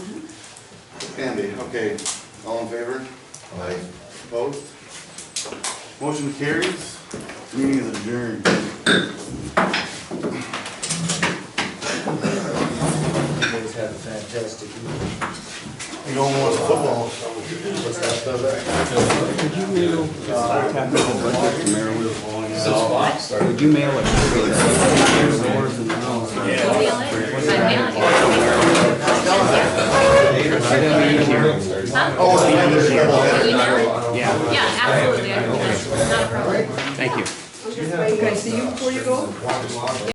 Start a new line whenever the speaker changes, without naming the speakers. Andy, okay, all in favor?
Aye.
Opposed? Motion carries, meeting is adjourned.
You guys have a fantastic evening.
You don't want football.
What's that, brother?
Would you mail it?
Yeah, absolutely, I can, not a problem.
Thank you.
Okay, see you before you go?